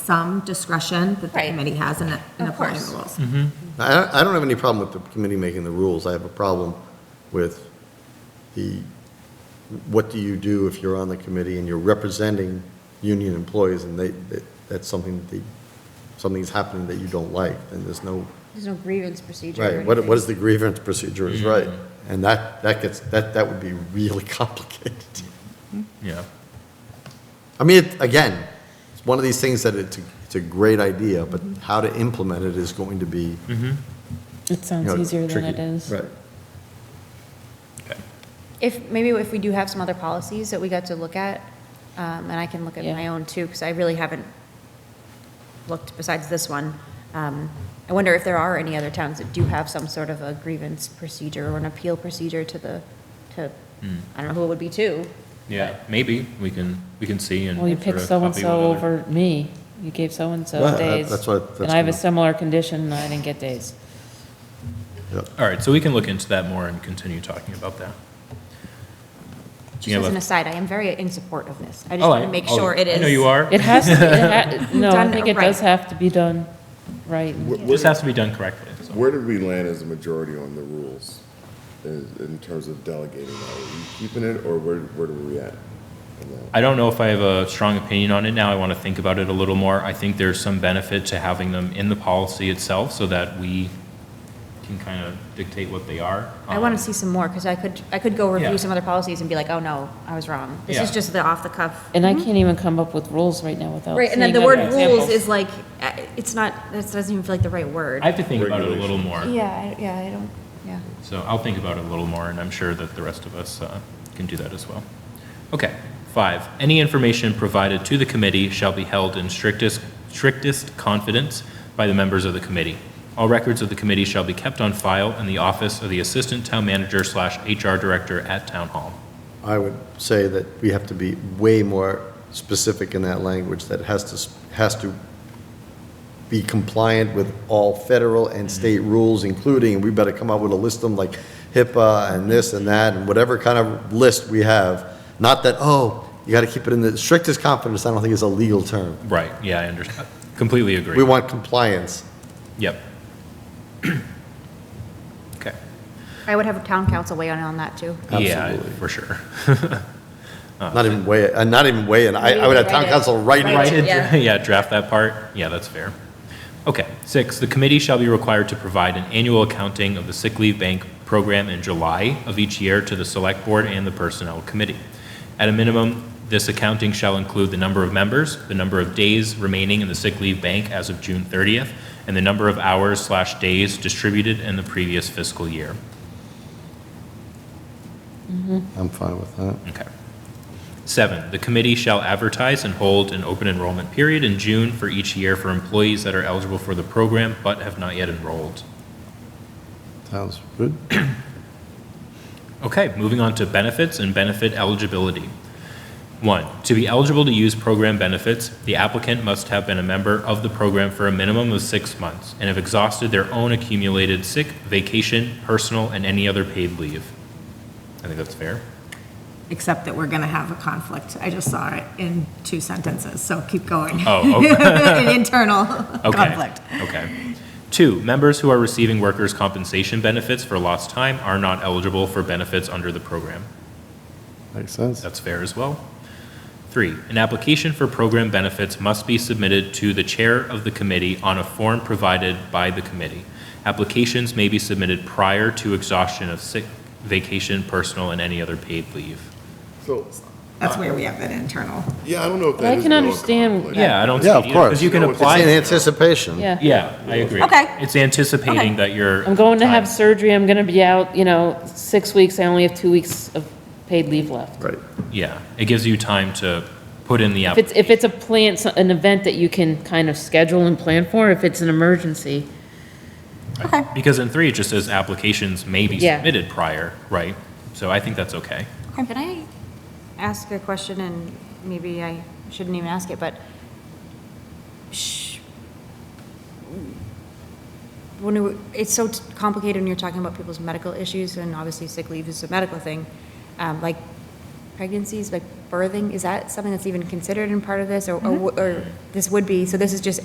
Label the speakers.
Speaker 1: some discretion that the
Speaker 2: Right.
Speaker 1: committee has in in
Speaker 2: Of
Speaker 1: applying the rules.
Speaker 2: course.
Speaker 3: Mm-hmm.
Speaker 4: I don't, I don't have any problem with the committee making the rules. I have a problem with the, what do you do if you're on the committee and you're representing union employees and they, that- that's something that they, something's happening that you don't like, and there's no,
Speaker 2: There's no grievance procedure. or
Speaker 4: right, what, what
Speaker 2: anything.
Speaker 4: is the grievance procedure is right. And that, that gets, that, that would be really complicated.
Speaker 3: Yeah.
Speaker 4: I mean, it- again, it's one of these things that it's, a- it's a great idea, but how to implement it is going to be, you
Speaker 5: It sounds
Speaker 4: know,
Speaker 5: easier than it
Speaker 4: tricky.
Speaker 5: is.
Speaker 4: Right.
Speaker 2: If, maybe if we do have some other policies that we got to look at, um, and I can look at
Speaker 5: Yeah.
Speaker 2: my own too, because I really haven't looked besides this one. Um, I wonder if there are any other towns that do have some sort of a grievance procedure or an appeal procedure to the, to,
Speaker 3: Hmm.
Speaker 2: I don't know who it would be to.
Speaker 3: Yeah, maybe we can, we can see and.
Speaker 5: Well, you
Speaker 3: sort
Speaker 5: picked
Speaker 3: of copy one
Speaker 5: so-and-so
Speaker 3: another.
Speaker 5: over me. You gave
Speaker 4: Yeah,
Speaker 5: so-and-so
Speaker 4: that-
Speaker 5: days.
Speaker 4: that's what-
Speaker 5: And
Speaker 4: that's
Speaker 5: I have a
Speaker 4: gonna-
Speaker 5: similar condition, and I didn't get days.
Speaker 4: Yep.
Speaker 3: All right, so we can look into that more and continue talking about that.
Speaker 2: Just
Speaker 3: Yeah,
Speaker 2: as an
Speaker 3: but-
Speaker 2: aside, I am very in support of this. I just
Speaker 3: Oh,
Speaker 2: want to make
Speaker 3: oh,
Speaker 2: sure it is.
Speaker 3: I know you are.
Speaker 5: It has, to. it ha- no, I
Speaker 2: Done
Speaker 5: think it
Speaker 2: right.
Speaker 5: does have to be done right.
Speaker 3: It
Speaker 6: Wh-
Speaker 3: just
Speaker 6: Where,
Speaker 3: has to be done correctly. so.
Speaker 6: where did we land as a majority on the rules in, in terms of delegating that? Are we keeping it or where, where are we at? on that?
Speaker 3: I don't know if I have a strong opinion on it now. I want to think about it a little more. I think there's some benefit to having them in the policy itself so that we can kind of dictate what they are.
Speaker 2: I want
Speaker 3: Um,
Speaker 2: to see some more, because I could, I could go review
Speaker 3: Yeah.
Speaker 2: some other policies and be like, oh no, I was wrong. This
Speaker 3: Yeah.
Speaker 2: is just the off-the-cuff
Speaker 5: And I can't even come up with rules right now without
Speaker 2: Mm-hmm. Right, and then
Speaker 5: seeing
Speaker 2: the
Speaker 5: other
Speaker 2: word rules
Speaker 5: examples.
Speaker 2: is like, uh, it's not, that doesn't even feel like the right word.
Speaker 3: I have to think about it a little more.
Speaker 2: Yeah, I- yeah, I don't, yeah.
Speaker 3: So I'll think about it a little more, and I'm sure that the rest of us uh, can do that as well. Okay, five, any information provided to the committee shall be held in strictest, strictest confidence by the members of the committee. All records of the committee shall be kept on file in the office of the Assistant Town Manager slash HR Director at Town Hall.
Speaker 4: I would say that we have to be way more specific in that language, that has to, s- has to be compliant with all federal and
Speaker 3: Mm-hmm.
Speaker 4: state rules, including, we better come up with a list of them like HIPAA and this and that, and whatever kind of list we have. Not that, oh, you gotta keep it in the strictest confidence, I don't think is a legal term.
Speaker 3: Right, yeah, I understand. Completely agree.
Speaker 4: We want compliance.
Speaker 3: Yep. Okay.
Speaker 2: I would have town council weigh in on that too.
Speaker 3: Yeah,
Speaker 4: Absolutely.
Speaker 3: for sure. Uh-huh.
Speaker 4: Not even way, uh, not even way, and I, I would have town council write it.
Speaker 3: Right,
Speaker 2: yeah.
Speaker 3: yeah, draft that part. Yeah, that's fair. Okay, six, the committee shall be required to provide an annual accounting of the sick leave bank program in July of each year to the select board and the personnel committee. At a minimum, this accounting shall include the number of members, the number of days remaining in the sick leave bank as of June 30th, and the number of hours slash days distributed in the previous fiscal year.
Speaker 4: I'm fine with that.
Speaker 3: Okay. Seven, the committee shall advertise and hold an open enrollment period in June for each year for employees that are eligible for the program but have not yet enrolled.
Speaker 4: Sounds good.
Speaker 3: Okay, moving on to benefits and benefit eligibility. One, to be eligible to use program benefits, the applicant must have been a member of the program for a minimum of six months and have exhausted their own accumulated sick, vacation, personal, and any other paid leave. I think that's fair.
Speaker 1: Except that we're going to have a conflict. I just saw it in two sentences, so keep going.
Speaker 3: Oh, okay.
Speaker 1: An internal
Speaker 3: Okay.
Speaker 1: conflict.
Speaker 3: Okay. Two, members who are receiving workers' compensation benefits for lost time are not eligible for benefits under the program.
Speaker 4: Makes sense.
Speaker 3: That's fair as well. Three, an application for program benefits must be submitted to the chair of the committee on a form provided by the committee. Applications may be submitted prior to exhaustion of sick, vacation, personal, and any other paid leave.
Speaker 6: So,
Speaker 1: That's where we have that internal.
Speaker 6: yeah, I don't know if
Speaker 5: But I
Speaker 6: that is.
Speaker 5: can
Speaker 6: a little
Speaker 5: understand-
Speaker 6: conflict.
Speaker 3: Yeah, I don't see.
Speaker 4: Yeah, of course.
Speaker 3: Because you can
Speaker 6: No, it's-
Speaker 3: apply.
Speaker 4: It's in anticipation.
Speaker 5: Yeah.
Speaker 3: Yeah, I agree.
Speaker 1: Okay.
Speaker 3: It's anticipating that you're.
Speaker 5: I'm going to have
Speaker 3: time.
Speaker 5: surgery, I'm gonna be out, you know, six weeks, I only have two weeks of paid leave left.
Speaker 4: Right.
Speaker 3: Yeah, it gives you time to put in the
Speaker 5: If it's,
Speaker 3: application.
Speaker 5: if it's a plan, so- an event that you can kind of schedule and plan for, if it's an emergency,
Speaker 3: Because in three, it just says applications may be
Speaker 5: Yeah.
Speaker 3: submitted prior, right? So I think that's okay.
Speaker 2: Can I ask a question and maybe I shouldn't even ask it, but sh- when it- it's so t- complicated when you're talking about people's medical issues and obviously sick leave is a medical thing, um, like Mm-hmm. pregnancies, like birthing, is that something that's even considered in part of this, or, or, or this would be, so this is just